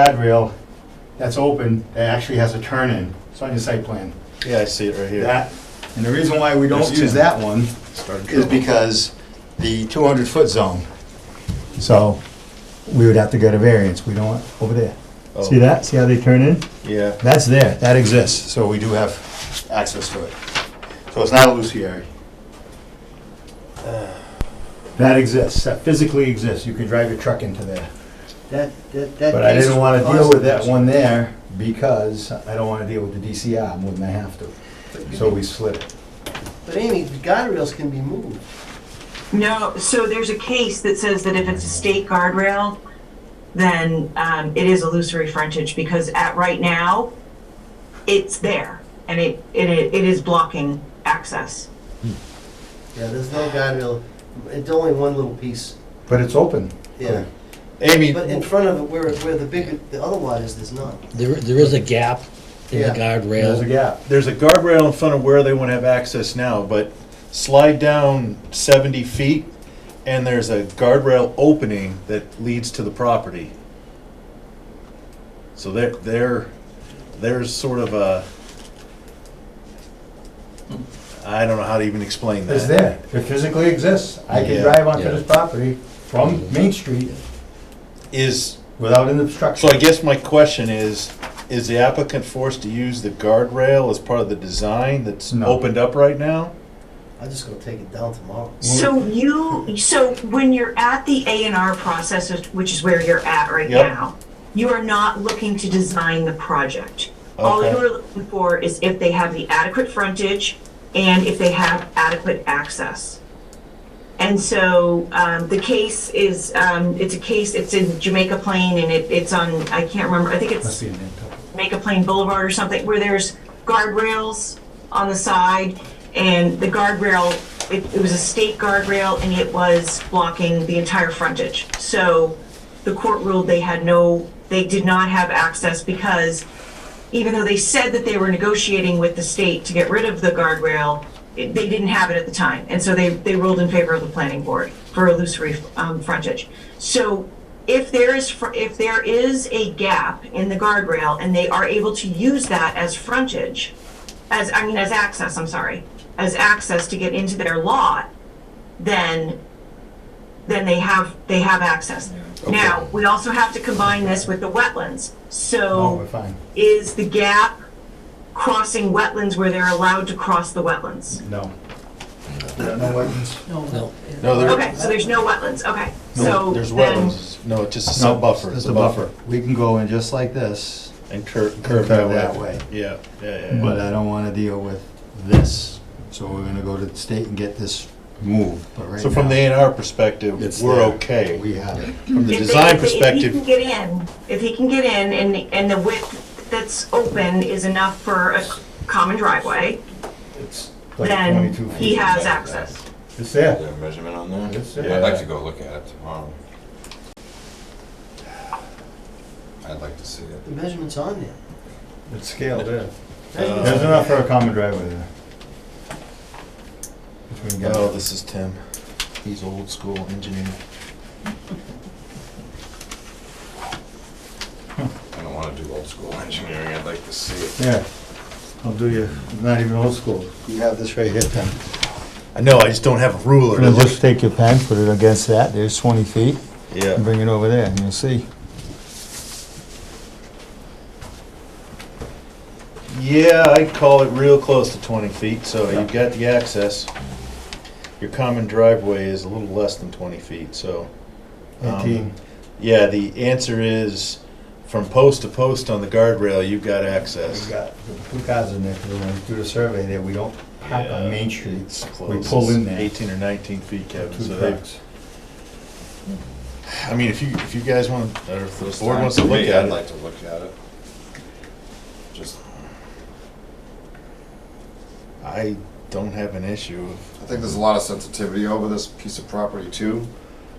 guardrail that's open, that actually has a turn in, it's on your site plan. Yeah, I see it right here. That, and the reason why we don't There's use two. that one Started is trouble. because the 200-foot zone. So we would have to get a variance, we don't, want over there. Oh, See that, see how they turn in? Yeah, That's there, that exists, so we do have access to it. So it's not E illusory. That exists, that physically exists, you could drive your truck into there. That, that, that. But I didn't wanna deal with that case- one there because I don't wanna deal with the DCR more than I have to. So we slid it. But Amy, the guardrails can be moved. No, so there's a case that says that if it's a state guardrail, then um, it is illusory frontage because at right now, it's there and it, it, it is blocking access. Yeah, there's no guardrail. It's only one little piece. But it's open. Yeah. Amy, But in front of it, where, where the bigger, the other lot is, there's none. There, there is a gap in the There's Yeah. a guardrail. gap. there's a guardrail in front of where they want to have access now, but slide down seventy feet and there's a guardrail opening that leads to the property. So there, there, there's sort of a, I don't know how to even explain that. It's there. It physically exists. I can Yeah, drive onto yeah. this property from Main Street Is, without an obstruction. so I guess my question is, is the applicant forced to use the guardrail as part of the design that's No. opened up right now? I'm just gonna take it down tomorrow. So you, so when you're at the A and R process, which is where you're at right Yep. now, you are not looking to design the project. All Okay. you are looking for is if they have the adequate frontage and if they have adequate access. And so um, the case is, um, it's a case, it's in Jamaica Plain and it, it's on, I can't remember, I think Must it's be a name tag. Jamaica Plain Boulevard or something, where there's guardrails on the side and the guardrail, it, it was a state guardrail and it was blocking the entire frontage. So the court ruled they had no, they did not have access because even though they said that they were negotiating with the state to get rid of the guardrail, it- they didn't have it at the time. And so they, they ruled in favor of the planning board for illusory um, frontage. So if there is, fr- if there is a gap in the guardrail and they are able to use that as frontage, as, I mean, as access, I'm sorry, as access to get into their lot, then, then they have, they have access. Now, we also have to combine this with the wetlands. No, So we're fine. is the gap crossing wetlands where they're allowed to cross the wetlands. No. No wetlands. No, No, there, Okay, so there's no wetlands, okay. No, So there's then, wetlands. No, it's just a sub buffer, it's a buffer. We can go in just like this, And curve, curve that way. Yeah, yeah, yeah, but yeah. I don't wanna deal with this. So we're gonna go to the state and get this moved, but right So from the now, A and R perspective, It's we're there. okay. We have it. From the if they- design if they- If he can perspective, get in, if he can get in and, and the width that's open is enough for a common driveway, It's like then 22 feet. he has back. access. It's there. Is there a measurement on there? Yes, sir. I'd like to go look at it tomorrow. I'd like to see it. The measurement's on there. It's scaled in. Measurement's There's on enough for a common driveway there. If we can get oh, it. this is Tim. He's old school engineer. I don't want to do old school engineering, I'd like to see it. Yeah, I'll do you, not even old school. You have this right here, Tim. I know, I just don't have a ruler to Now look. just take your pen, put it against that, there's 20 feet, and Yeah. bring it over there, and you'll see. Yeah, I'd call it real close to twenty feet, so you've got the access. Your common driveway is a little less than twenty feet, so. um, Yeah, the answer is from post to post on the guardrail, you've got access. We've got the two cars in there, 'cause when we do the survey there, we don't park Yeah. on Main Streets. We Close. pull in It's there, Eighteen or nineteen feet, Kevin, two so they, trucks. I mean, if you, if you guys want, or if the First board time wants to for look me, at I'd it. like to look at it. Just, I don't have an issue. I think there's a lot of sensitivity over this piece of property too,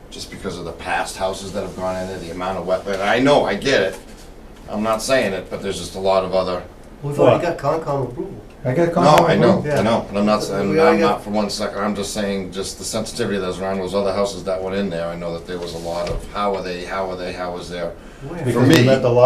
just because of the past houses that have gone in there, the amount of wetland. I know, I get it. I'm not saying it, but there's just a lot of other there. We've already got Concom approval. I got a No, I comment, know, yeah. I know, and I'm not, We and already I'm got- not for one second, I'm just saying, just the sensitivity that's around those other houses that went in there, I know that there was a lot of, how are they, how are they, how is their Where? Because we me- met the lot